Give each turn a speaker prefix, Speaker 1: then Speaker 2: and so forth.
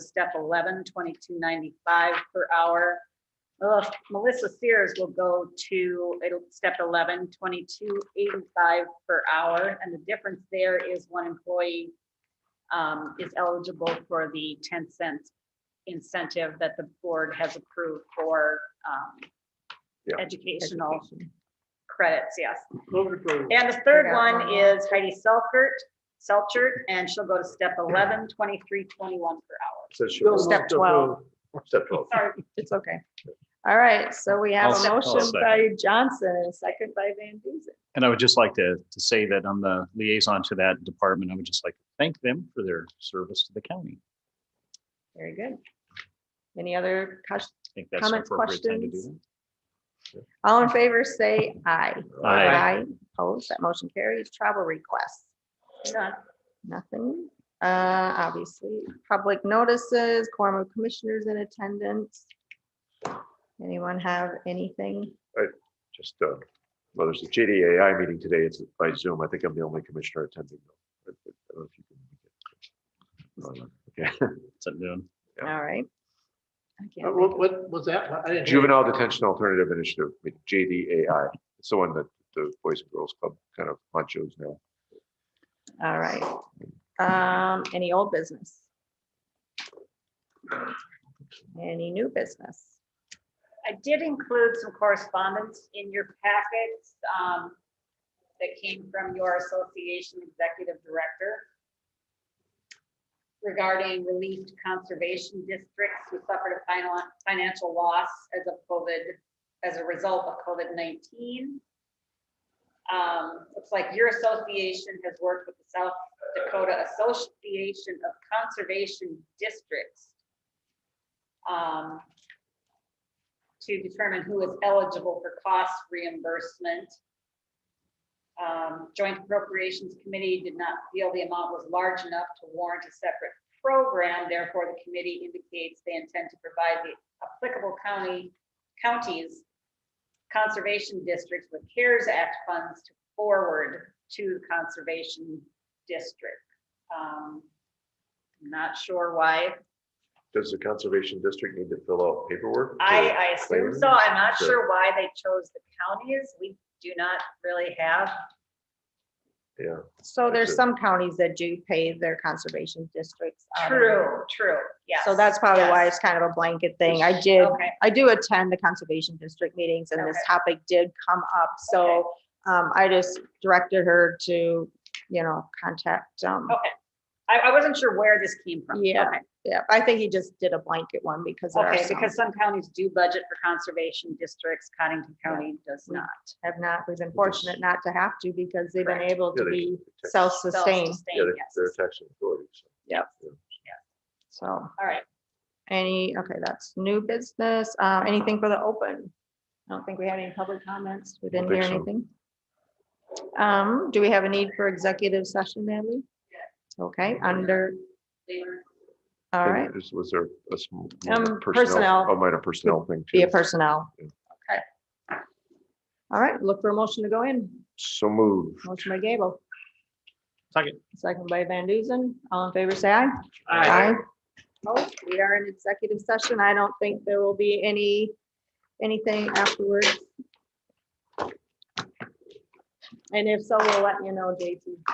Speaker 1: step 11, 2295 per hour. Ugh, Melissa Sears will go to, it'll step 11, 2285 per hour. And the difference there is one employee um, is eligible for the 10 cent incentive that the board has approved for um,
Speaker 2: Yeah.
Speaker 1: educational credits, yes.
Speaker 3: Move it forward.
Speaker 1: And the third
Speaker 4: Figure out one
Speaker 1: one
Speaker 4: more.
Speaker 1: is Heidi Selkert, Selchert, and she'll go to step 11, 23, 21 per
Speaker 2: Says she
Speaker 3: Bill
Speaker 2: was-
Speaker 4: Step
Speaker 3: moved to
Speaker 4: 12.
Speaker 3: approve.
Speaker 2: Step twelve.
Speaker 1: hour. Sorry,
Speaker 4: It's okay. All right, so we have
Speaker 5: I'll-
Speaker 4: a
Speaker 5: I'll
Speaker 4: motion
Speaker 5: second.
Speaker 4: by Johnson and a second by Van Duzen.
Speaker 5: And I would just like to, to say that I'm the liaison to that department. I would just like to thank them for their service to the county.
Speaker 4: Very good. Any other questions?
Speaker 5: I think that's an
Speaker 4: Comments,
Speaker 5: appropriate time to do
Speaker 4: questions? All in favor, say aye.
Speaker 5: that. I,
Speaker 4: Opposed, that motion carries. Travel requests,
Speaker 1: none.
Speaker 4: nothing. Uh, obviously, public notices, quorum of commissioners in attendance. Anyone have anything?
Speaker 2: Just, uh, well, there's a JDAI meeting today. It's by Zoom. I think I'm the only commissioner attending. though. I- I don't know if you can make it. Okay.
Speaker 5: that's what I'm doing.
Speaker 2: Yeah.
Speaker 4: All right. I can't
Speaker 3: Uh,
Speaker 4: think
Speaker 3: What, what was that? I didn't hear.
Speaker 2: Uh, Juvenile Detention Alternative Initiative, JDAI. It's the one that the Boys and Girls Club kind of honchos now.
Speaker 4: All right. Um, any old business? Any new business?
Speaker 1: I did include some correspondence in your packets um, that came from your association executive director regarding relief to conservation districts who suffered a final- financial loss as of COVID, as a result of COVID-19. Um, Looks like your association has worked with the South Dakota Association of Conservation Districts um, to determine who is eligible for cost reimbursement. Um, Joint Appropriations Committee did not feel the amount was large enough to warrant a separate program. Therefore, the committee indicates they intend to provide the applicable county, counties, conservation districts with CARES Act funds to forward to the conservation district. Um, Not sure why
Speaker 2: Does the Conservation District need to fill out paperwork? to-
Speaker 1: I, I assume
Speaker 2: Claims?
Speaker 1: so. I'm not
Speaker 2: Sure.
Speaker 1: sure why they chose the counties. We do not really have.
Speaker 2: Yeah.
Speaker 4: So
Speaker 2: That's
Speaker 4: there's
Speaker 2: it.
Speaker 4: some counties that do pay their conservation districts. out of-
Speaker 1: True, um, true, yes.
Speaker 4: So that's probably why
Speaker 1: yes.
Speaker 4: it's kind of a blanket thing. I did,
Speaker 1: Okay.
Speaker 4: I do attend the conservation district meetings and this
Speaker 1: Okay.
Speaker 4: topic did come up. So um, I just directed her to, you know, contact, um,
Speaker 1: Okay. I, I wasn't sure where this came from.
Speaker 4: Yeah.
Speaker 1: Okay.
Speaker 4: yeah, I think he just did a blanket one because there are
Speaker 1: Okay,
Speaker 4: some
Speaker 1: because some counties do budget for conservation districts, Cottington County does
Speaker 4: Yeah.
Speaker 1: not.
Speaker 4: have not, we've been fortunate not to have to because they've been
Speaker 1: Correct.
Speaker 4: able to
Speaker 2: Yeah, they-
Speaker 4: be
Speaker 2: they-
Speaker 4: self-sustained.
Speaker 2: Yeah, they're-
Speaker 1: Self-sustained, yes.
Speaker 2: they're taxing authorities.
Speaker 4: So
Speaker 1: All right,
Speaker 4: any, okay, that's new business. Uh, anything for the open? I don't think we had any public comments. We
Speaker 2: Don't
Speaker 4: didn't hear
Speaker 2: think so.
Speaker 4: anything. Um, do we have a need for executive session, Natalie? Okay, under,
Speaker 1: they were-
Speaker 4: all right,
Speaker 2: Is- Was there a small?
Speaker 4: Um, personnel.
Speaker 2: Oh, minor personnel thing.
Speaker 4: be a
Speaker 2: too.
Speaker 4: personnel.
Speaker 2: Yeah.
Speaker 4: Okay. All right, look for a motion to go in.
Speaker 2: So move.
Speaker 4: Motion by Gable,
Speaker 5: Second.
Speaker 4: second by Van Duzen. All in favor, say aye.
Speaker 3: Aye.
Speaker 4: Oh, we are in executive session. I don't think there will be any, anything afterwards. And if so, we'll let you know, JT.